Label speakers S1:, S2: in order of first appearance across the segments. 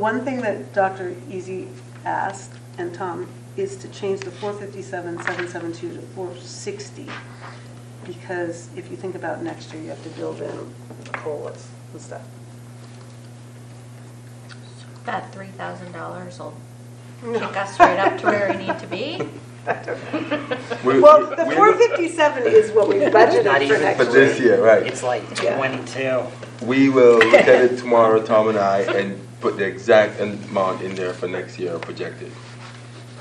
S1: One thing that Dr. Easy asked, and Tom, is to change the 457,772 to 460, because if you think about next year, you have to build in the COLAs and stuff.
S2: That three thousand dollars will kick us right up to where we need to be.
S3: We-
S1: Well, the
S3: we-
S1: 457 is what we
S4: Not
S1: budgeted for
S4: even
S1: next
S3: For
S1: year.
S4: budget-
S3: this year, right.
S4: It's like
S1: Yeah.
S4: 22.
S3: We will look at it tomorrow, Tom and I, and put the exact amount in there for next year projected.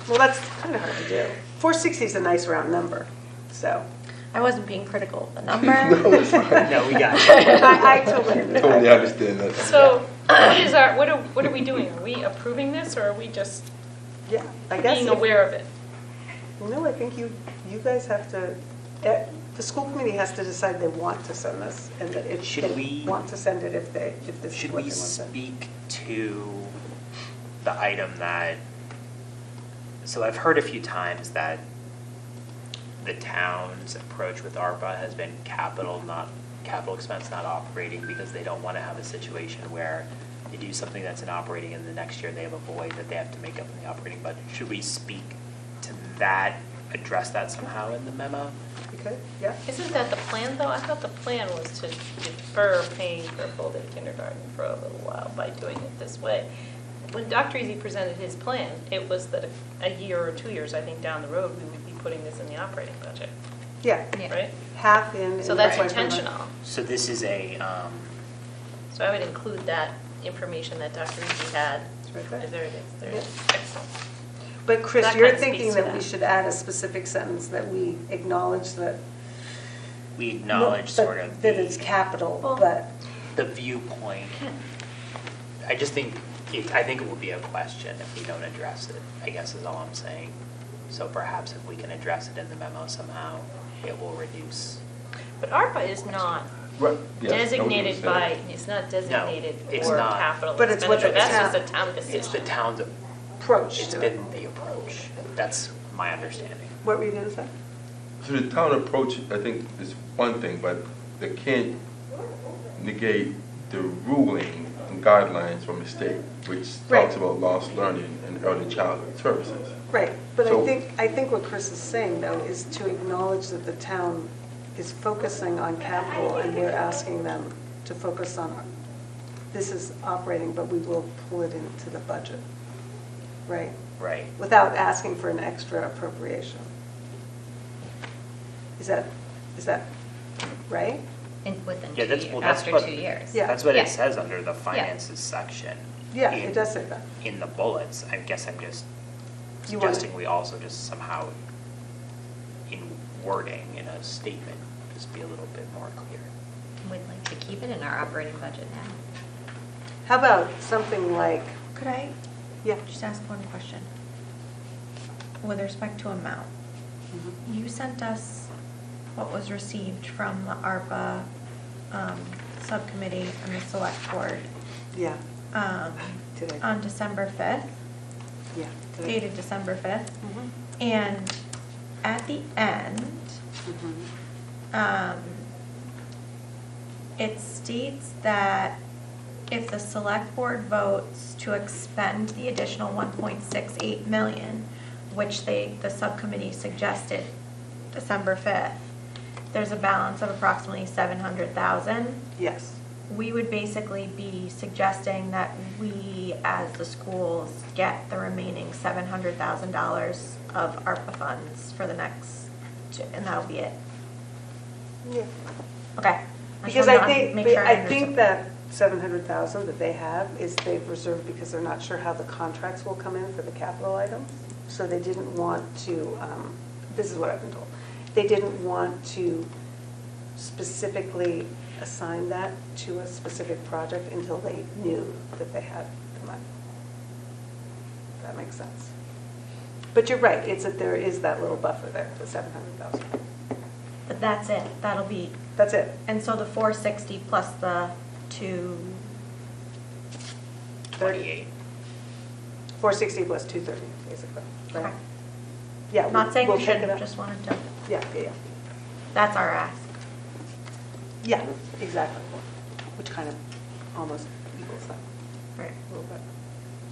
S1: Well, that's kind of hard to do. 460 is a nice round number, so.
S2: I wasn't being critical of the
S3: No,
S2: number.
S3: it's fine.
S4: No, we got it.
S1: I I totally agree.
S3: Totally understand that.
S5: So what is our, what are, what are we doing? Are we approving this or are we just
S1: Yeah, I guess,
S5: being
S1: if-
S5: aware of it?
S1: no, I think you, you guys have to, eh, the school committee has to decide they want to send this, and that if
S4: Should
S1: they
S4: we-
S1: want to send it, if they, if this is
S4: Should
S1: what they
S4: we
S1: want to.
S4: speak to the item that, so I've heard a few times that the town's approach with ARPA has been capital not, capital expense not operating because they don't want to have a situation where they do something that's in operating and the next year they have a void that they have to make up in the operating budget. Should we speak to that, address that somehow in the memo?
S1: Okay, yeah.
S5: Isn't that the plan though? I thought the plan was to defer paying for full day kindergarten for a little while by doing it this way. When Dr. Easy presented his plan, it was that a- a year or two years, I think, down the road, we would be putting this in the operating budget,
S1: Yeah,
S2: Yeah.
S5: right?
S1: half in. and
S5: So that's
S1: why we're not-
S5: intentional.
S4: So this is a, um,
S5: So I would include that information that Dr. Easy had.
S1: It's right there.
S5: There it is, there it is. Excellent.
S1: But Chris,
S5: That
S1: you're
S5: kind of
S1: thinking
S5: speaks to
S1: that we
S5: that.
S1: should add a specific sentence that we acknowledge that.
S4: we acknowledge
S1: but
S4: sort of
S1: That it's
S4: the,
S1: capital,
S2: Well-
S1: but,
S4: the viewpoint. I just think, it- I think it will be a question if we don't address it, I guess is all I'm saying. So perhaps if we can address it in the memo somehow, it will reduce.
S5: But ARPA is not
S3: Right, yes, I would
S5: designated
S3: understand.
S5: by, it's not designated
S4: it's
S5: for
S4: not.
S5: capital
S1: But it's what the
S5: expenditure. That's
S1: town-
S5: just a town
S4: It's the
S5: decision.
S4: town's,
S1: approach
S4: it's
S1: to it.
S4: been the approach. That's my understanding.
S1: What were you going to say?
S3: So the town approach, I think, is one thing, but they can't negate the ruling and guidelines from the state, which
S1: Right.
S3: talks about lost learning and early childhood services.
S1: Right, but I
S3: So-
S1: think, I think what Chris is saying, though, is to acknowledge that the town is focusing on capital, and we're asking them to focus on, this is operating, but we will pull it into the budget, right?
S4: Right.
S1: Without asking for an extra appropriation. Is that, is that right?
S2: And within
S4: Yeah,
S2: two
S4: that's, well,
S2: years,
S4: that's
S2: after
S4: what.
S2: two years.
S1: Yeah.
S4: That's what it
S2: Yeah.
S4: says under the finances section.
S1: Yeah,
S4: in-
S1: it does say that.
S4: In the bullets, I guess I'm just
S1: You want it-
S4: suggesting we also just somehow, in wording, in a statement, just be a little bit more clear.
S2: We'd like to keep it in our operating budget now.
S1: How about something like,
S6: Could I
S1: yeah,
S6: just ask one question? With respect to amount,
S1: mm-hmm,
S6: you sent us what was received from the ARPA um, subcommittee and the select board
S1: yeah,
S6: um,
S1: Today.
S6: on December 5th,
S1: yeah.
S6: dated December 5th.
S1: Mhm,
S6: And at the end,
S1: mhm.
S6: um, it states that if the select board votes to expend the additional 1.68 million, which they, the subcommittee suggested December 5th, there's a balance of approximately 700,000
S1: Yes.
S6: we would basically be suggesting that we, as the schools, get the remaining seven hundred thousand dollars of ARPA funds for the next, two- and that'll be it.
S1: Yeah.
S6: Okay. just
S1: Because
S6: wanna
S1: I think,
S6: make sure
S1: I
S6: understand.
S1: think that 700,000 that they have is they've reserved because they're not sure how the contracts will come in for the capital items. So they didn't want to, um, this is what I've been told, they didn't want to specifically assign that to a specific project until they knew that they had the money. If That makes sense. But you're right, it's that there is that little buffer there, the 700,000.
S6: But that's it, that'll be,
S1: That's it.
S6: and so the four sixty plus the two,
S4: Twenty-eight.
S1: 460 plus 230, basically. right?
S6: Okay.
S1: Yeah. we-
S6: not saying
S1: we'll
S6: we
S1: pick it
S6: shouldn't,
S1: up.
S6: just wanted to,
S1: Yeah, yeah, yeah.
S6: that's our ask.
S1: Yeah, exactly. Which kind of almost equals that
S6: Right.
S1: a little bit.